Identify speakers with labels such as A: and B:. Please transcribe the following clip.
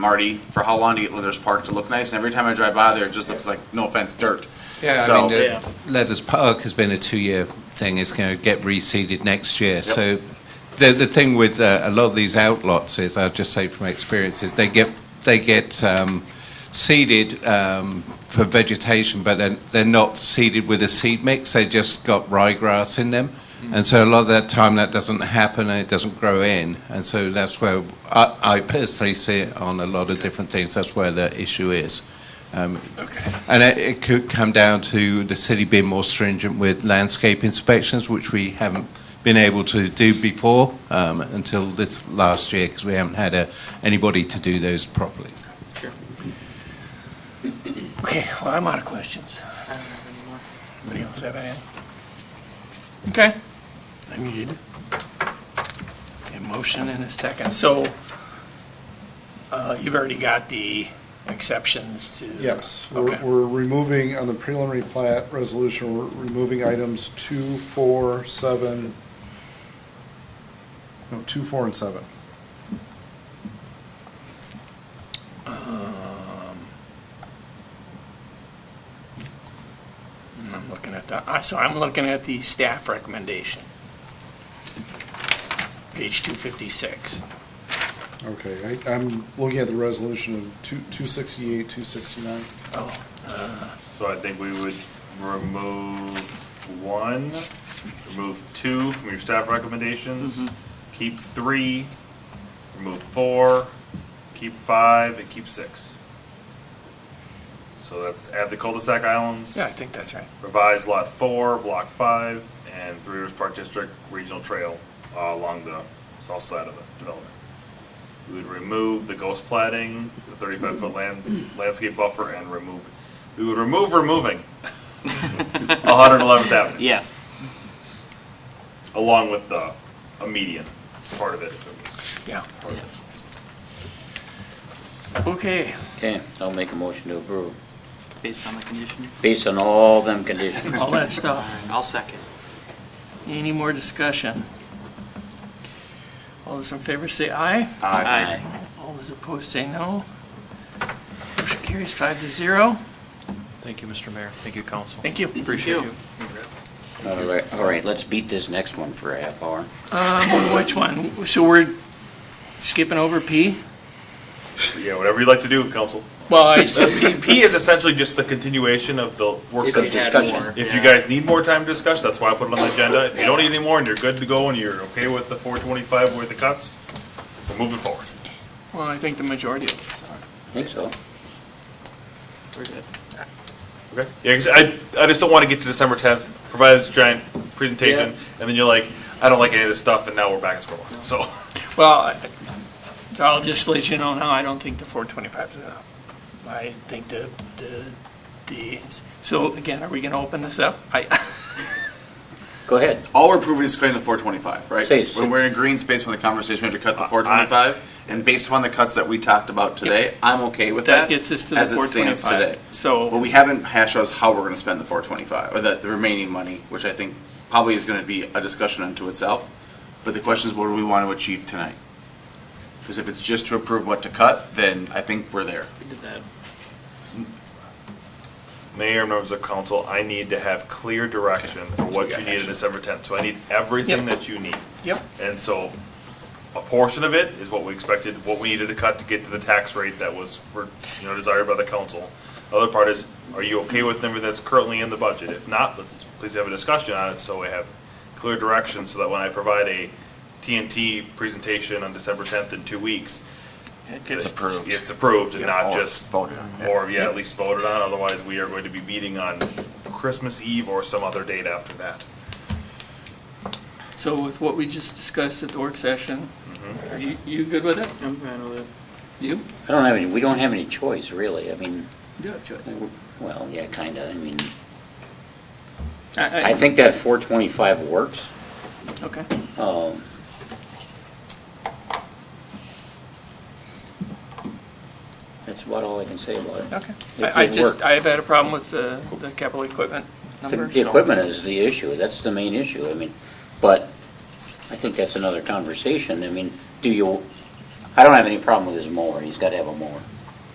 A: Marty for how long to get Leathers Park to look nice, and every time I drive by there, it just looks like, no offense, dirt.
B: Yeah, I
A: So-
B: mean,
C: Yeah.
B: the Leathers Park has been a two-year thing. It's going to get reseeded next year. So the, the thing with uh, a lot of these outlots is, I'll just say from experience, is they get, they get um, seeded um, for vegetation, but then they're not seeded with a seed mix. They just got ryegrass in them. And so a lot of that time that doesn't happen and it doesn't grow in. And so that's where I, I personally see it on a lot of different things. That's where the issue is. Um, And it, it could come down to the city being more stringent with landscape inspections, which we haven't been able to do before um, until this last year because we haven't had a, anybody to do those properly.
D: Okay, well, I'm out of questions. Anybody else have any? Okay. I need a motion and a second. So uh, you've already got the exceptions to.
E: Yes, we're,
D: Okay.
E: we're removing, on the preliminary plat resolution, we're removing items two, four, seven, no, two, four, and seven.
D: I'm looking at the, I- so I'm looking at the staff recommendation. Page 256.
E: Okay, I, I'm looking at the resolution of two, two sixty-eight, two sixty-nine.
D: Oh,
F: So I think we would remove one, remove two from your staff recommendations,
D: Mm-hmm.
F: keep three, remove four, keep five, and keep six. So that's add the cul-de-sac islands,
D: yeah, I think that's right.
F: revise lot four, block five, and Three Rivers Park District Regional Trail uh, along the south side of the development. We would remove the ghost plating, the thirty-five foot land, landscape buffer, and remove, we would remove removing one hundred eleventh Avenue,
C: Yes.
F: along with the, a median part of it. if it was
D: Yeah.
F: part of it.
D: Okay.
G: Okay, so I'll make a motion to approve,
C: Based on the condition?
G: based on all them conditions.
D: All that stuff.
C: I'll second.
D: Any more discussion? All those in favor say aye.
G: Aye.
D: All those opposed say no. Motion carries five to zero.
H: Thank you, Mr. Mayor. Thank you, council.
D: Thank you.
H: Appreciate you.
G: All right, all right, let's beat this next one for a half hour.
D: Which one? So we're skipping over P?
F: Yeah, whatever you'd like to do, council.
D: Well, I s-
F: P is essentially just the continuation of the work
G: If you
F: session.
G: had more.
F: If you guys need more time to discuss, that's why I put it on the agenda. If you don't need any more and you're good to go and you're okay with the four twenty-five worth of cuts, we're moving forward.
D: well, I think the majority of us are.
G: I think so.
C: We're good.
F: Okay. Yeah, 'cause I, I just don't want to get to December tenth, provide this giant presentation, and then you're like, I don't like any of this stuff, and now we're back in square one. So,
D: Well, I- I'll just let you know now, I don't think the four twenty-five is enough. I think the, the, the, so again, are we gonna open this up? I,
G: Go ahead.
A: All we're approving is cutting the four twenty-five, right?
G: Say it's-
A: When we're in green space, when the conversation, we have to
D: Uh,
A: cut the four twenty-five, and based upon the cuts that we talked about today, I'm okay with that.
D: that gets us to the
A: as it
D: four
A: stands
D: twenty-five.
A: today.
D: So.
A: But we haven't hashed out how we're gonna spend the four twenty-five, or the, the remaining money, which I think probably is gonna be a discussion unto itself. But the question is, what do we want to achieve tonight? Because if it's just to approve what to cut, then I think we're there.
C: We did that.
F: Mayor, members of council, I need to have clear direction for what you need on December tenth. So I need
D: Yep.
F: everything that you need.
D: Yep.
F: And so a portion of it is what we expected, what we needed to cut to get to the tax rate that was, you know, desired by the council. Other part is, are you okay with the number that's currently in the budget? If not, let's please have a discussion on it so we have clear direction so that when I provide a TNT presentation on December tenth in two weeks.
A: gets
F: this-
A: approved.
F: It's approved and not
A: Or
F: just.
A: voted on.
F: Or, yeah, at least voted on, otherwise we are going to be meeting on Christmas Eve or some other date after that.
D: So with what we just discussed at the work session, are you, you good with it?
C: I'm fine with it.
D: You?
G: I don't have any, we don't have any choice, really, I mean,
D: You have a choice.
G: w- well, yeah, kinda, I mean,
D: I,
G: I think that four twenty-five works.
D: Okay.
G: Um, That's about all I can say about it.
D: Okay.
G: It
D: I, I
G: did
D: just,
G: work.
D: I've had a problem with the, the capital equipment
G: The-
D: number.
G: The equipment is the issue, that's the main issue, I mean, but I think that's another conversation, I mean, do you, I I don't have any problem with his mower, he's gotta have a mower.